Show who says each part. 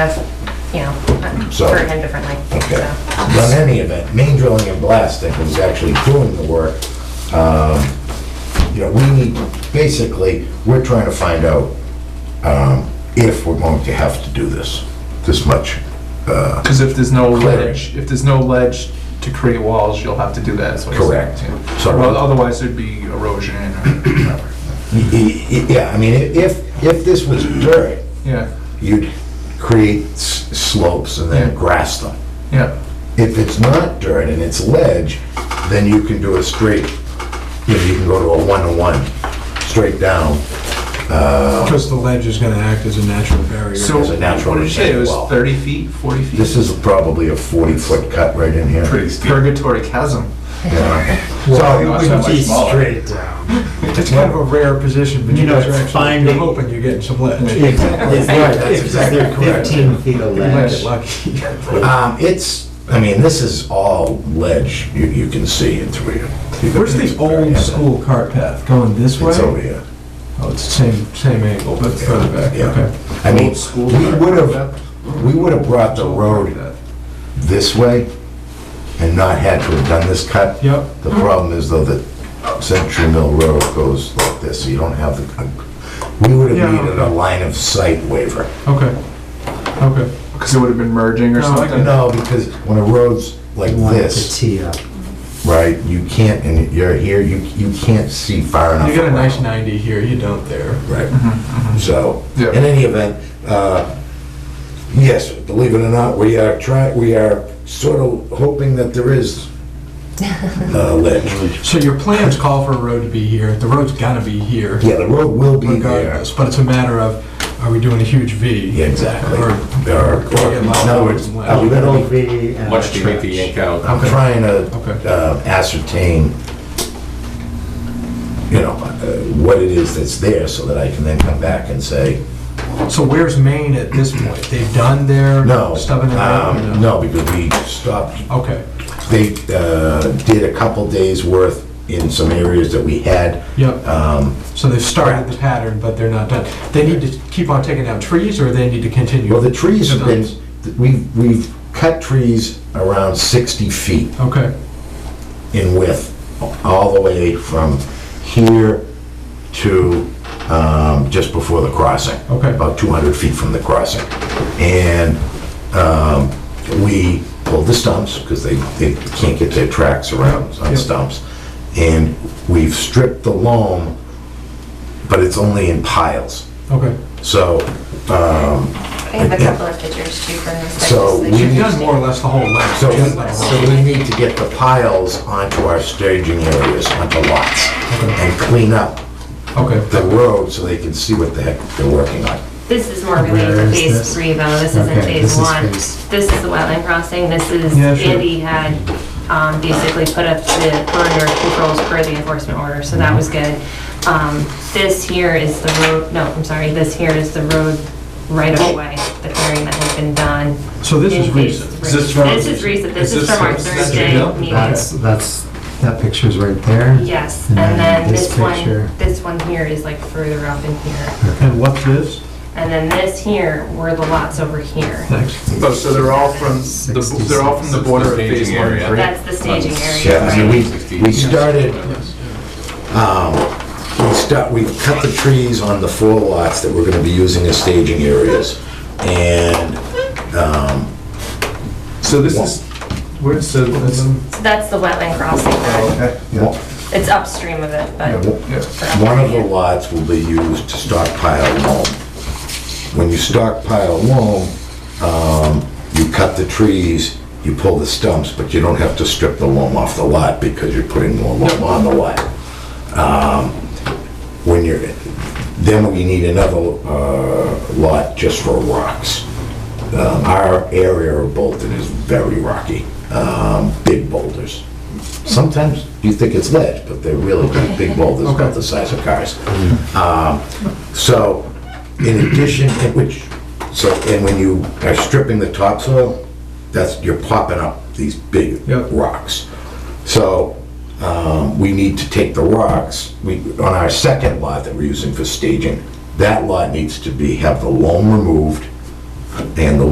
Speaker 1: of, you know,
Speaker 2: So-
Speaker 1: hurt him differently.
Speaker 2: Okay.
Speaker 1: so.
Speaker 2: But in any event, main drilling and blasting was actually doing the work. Um, You know, we need, basically, we're trying to find out um, if we're going to have to do this, this much. uh,
Speaker 3: Because if there's no
Speaker 2: Clearing.
Speaker 3: ledge, if there's no ledge to create walls, you'll have to do that. is what he's saying,
Speaker 2: Correct.
Speaker 3: too.
Speaker 2: So-
Speaker 3: Well, otherwise there'd be erosion or whatever.
Speaker 2: y- y- y- Yeah, I mean, i- if, if this was dirt,
Speaker 3: Yeah,
Speaker 2: you'd create s- slopes and then
Speaker 3: Yeah.
Speaker 2: grass them.
Speaker 3: yeah,
Speaker 2: If it's not dirt and it's ledge, then you can do a straight, you know, you can go to a one-to-one, straight down
Speaker 4: Because the ledge is gonna act as a natural barrier.
Speaker 3: so
Speaker 2: There's a natural
Speaker 3: what did you say, it was
Speaker 2: wall.
Speaker 3: thirty feet, forty feet?
Speaker 2: This is probably a 40-foot cut right in here.
Speaker 3: Pretty steep. Purgatory chasm.
Speaker 2: Yeah.
Speaker 4: Well, it
Speaker 2: So,
Speaker 3: not
Speaker 4: wouldn't
Speaker 3: so much
Speaker 4: be
Speaker 3: smaller.
Speaker 4: straight down. It's kind of a rare position, but you
Speaker 5: You know,
Speaker 4: guys are
Speaker 5: it's
Speaker 4: actually, you're
Speaker 5: finding-
Speaker 4: hoping you're getting some ledge.
Speaker 2: Exactly.
Speaker 5: Is
Speaker 2: Right,
Speaker 5: there,
Speaker 2: that's
Speaker 5: is there
Speaker 2: exactly correct.
Speaker 5: fifteen feet of
Speaker 4: You might get
Speaker 5: ledge?
Speaker 4: lucky.
Speaker 2: Um, it's, I mean, this is all ledge, you, you can see it through. here.
Speaker 4: Where's the old school cart path, going this way?
Speaker 2: It's over here,
Speaker 4: Oh, it's the same, same angle, but further back,
Speaker 2: yeah.
Speaker 4: okay.
Speaker 2: I mean,
Speaker 3: Old school
Speaker 2: we
Speaker 3: cart
Speaker 2: would have, we would have brought the road this way and not had to have done this cut.
Speaker 4: Yep.
Speaker 2: The problem is though that Century Mill Road goes like this, so you don't have the, we would have
Speaker 4: Yeah.
Speaker 2: needed a line of sight waiver.
Speaker 4: Okay, okay.
Speaker 3: Because it would have been merging or
Speaker 4: No, I
Speaker 3: something.
Speaker 2: No, because when a road's like
Speaker 5: One to
Speaker 2: this.
Speaker 5: tee up.
Speaker 2: right? You can't, and you're here, you, you can't see far enough.
Speaker 4: You got a nice
Speaker 2: around,
Speaker 4: 90 here, you don't there. mm-hmm.
Speaker 2: Right, so,
Speaker 3: Yeah.
Speaker 2: in any event, uh, yes, believe it or not, we are try, we are sort of hoping that there is uh, ledge.
Speaker 4: So your plans call for a road to be here, the road's gotta be here.
Speaker 2: Yeah, the road will be there.
Speaker 4: regardless, but it's a matter of, are we doing a huge V?
Speaker 2: Yeah, Exactly.
Speaker 4: Or-
Speaker 2: Or, or, in other words, are we
Speaker 5: Little
Speaker 2: gonna be-
Speaker 5: V and
Speaker 6: Much
Speaker 5: a
Speaker 6: to make the
Speaker 5: church.
Speaker 6: yank out.
Speaker 2: I'm trying to
Speaker 4: Okay.
Speaker 2: uh, ascertain, you know, uh, what it is that's there, so that I can then come back and say,
Speaker 4: So where's Maine at this point? They've done their
Speaker 2: No.
Speaker 4: stubbing it out? or
Speaker 2: um, No, because we stopped,
Speaker 4: Okay,
Speaker 2: they uh, did a couple days' worth in some areas that we had.
Speaker 4: yep,
Speaker 2: Um,
Speaker 4: so they've started the pattern, but they're not done. They need to keep on taking down trees, or they need to continue?
Speaker 2: Well, the trees have been, we've, we've cut trees around 60 feet
Speaker 4: Okay,
Speaker 2: in width, all the way from here to um, just before the crossing.
Speaker 4: Okay.
Speaker 2: About 200 feet from the crossing. And um, we pulled the stumps, because they, they can't get their tracks around on
Speaker 4: Yeah.
Speaker 2: stumps. And we've stripped the loam, but it's only in piles.
Speaker 4: okay.
Speaker 2: So, um,
Speaker 1: I have a couple of pictures too from this.
Speaker 2: So
Speaker 1: that
Speaker 2: we-
Speaker 1: just-
Speaker 4: You've done more or less the whole length.
Speaker 2: so,
Speaker 4: just like-
Speaker 2: so we need to get the piles onto our staging areas, onto lots, and clean up the
Speaker 4: Okay,
Speaker 2: road so they can see what the heck they're working on.
Speaker 1: This is more
Speaker 5: Where
Speaker 1: related to
Speaker 5: is
Speaker 1: phase
Speaker 5: this?
Speaker 1: three though, this isn't
Speaker 5: Okay,
Speaker 1: phase
Speaker 5: this is
Speaker 1: one.
Speaker 5: phase-
Speaker 1: This is the wetland crossing, this is,
Speaker 4: Yeah, sure.
Speaker 1: Andy had, um, basically put up the perimeter controls per the enforcement order, so that was good. Um, this here is the road, no, I'm sorry, this here is the road right of way, the clearing that has been done.
Speaker 4: so this is
Speaker 1: in phase
Speaker 4: recent.
Speaker 1: three.
Speaker 6: Is this from-
Speaker 1: This is recent, this
Speaker 6: is
Speaker 1: is
Speaker 6: this
Speaker 1: from our
Speaker 6: from Century
Speaker 1: Thursday
Speaker 6: Mill?
Speaker 1: meeting.
Speaker 5: That's, that's, that picture's right there.
Speaker 1: Yes,
Speaker 5: And
Speaker 1: and
Speaker 5: then
Speaker 1: then
Speaker 5: this
Speaker 1: this one,
Speaker 5: picture.
Speaker 1: this one here is like further up in here.
Speaker 4: And what's this?
Speaker 1: And then this here were the lots over here.
Speaker 4: Thanks.
Speaker 3: Oh, so they're all from, the they're all from the border of
Speaker 6: Staging
Speaker 3: phase one and
Speaker 6: area.
Speaker 3: three?
Speaker 1: That's the staging area,
Speaker 2: Yeah, I mean,
Speaker 1: right?
Speaker 2: we, we started, um, we start, we cut the trees on the four lots that we're gonna be using as staging areas. And, um,
Speaker 3: So this is, where's, so that's,
Speaker 1: So that's the wetland crossing,
Speaker 2: Oh,
Speaker 1: then.
Speaker 2: one
Speaker 1: it's upstream of it, but.
Speaker 3: yeah.
Speaker 2: one of the lots will be used to stockpile loam. When you stockpile loam, um, you cut the trees, you pull the stumps, but you don't have to strip the loam off the lot because you're putting more loam on the lot. Um, When you're, then we need another uh, lot just for rocks. Um, Our area of Bolton is very rocky, um, big boulders. Sometimes you think it's ledge, but they're really big- big boulders about the size of cars. Um, So, in addition, in which, so, and when you are stripping the topsoil, that's, you're popping up these big
Speaker 4: Yep.
Speaker 2: rocks. So, um, we need to take the rocks, we, on our second lot that we're using for staging, that lot needs to be, have the loam removed and the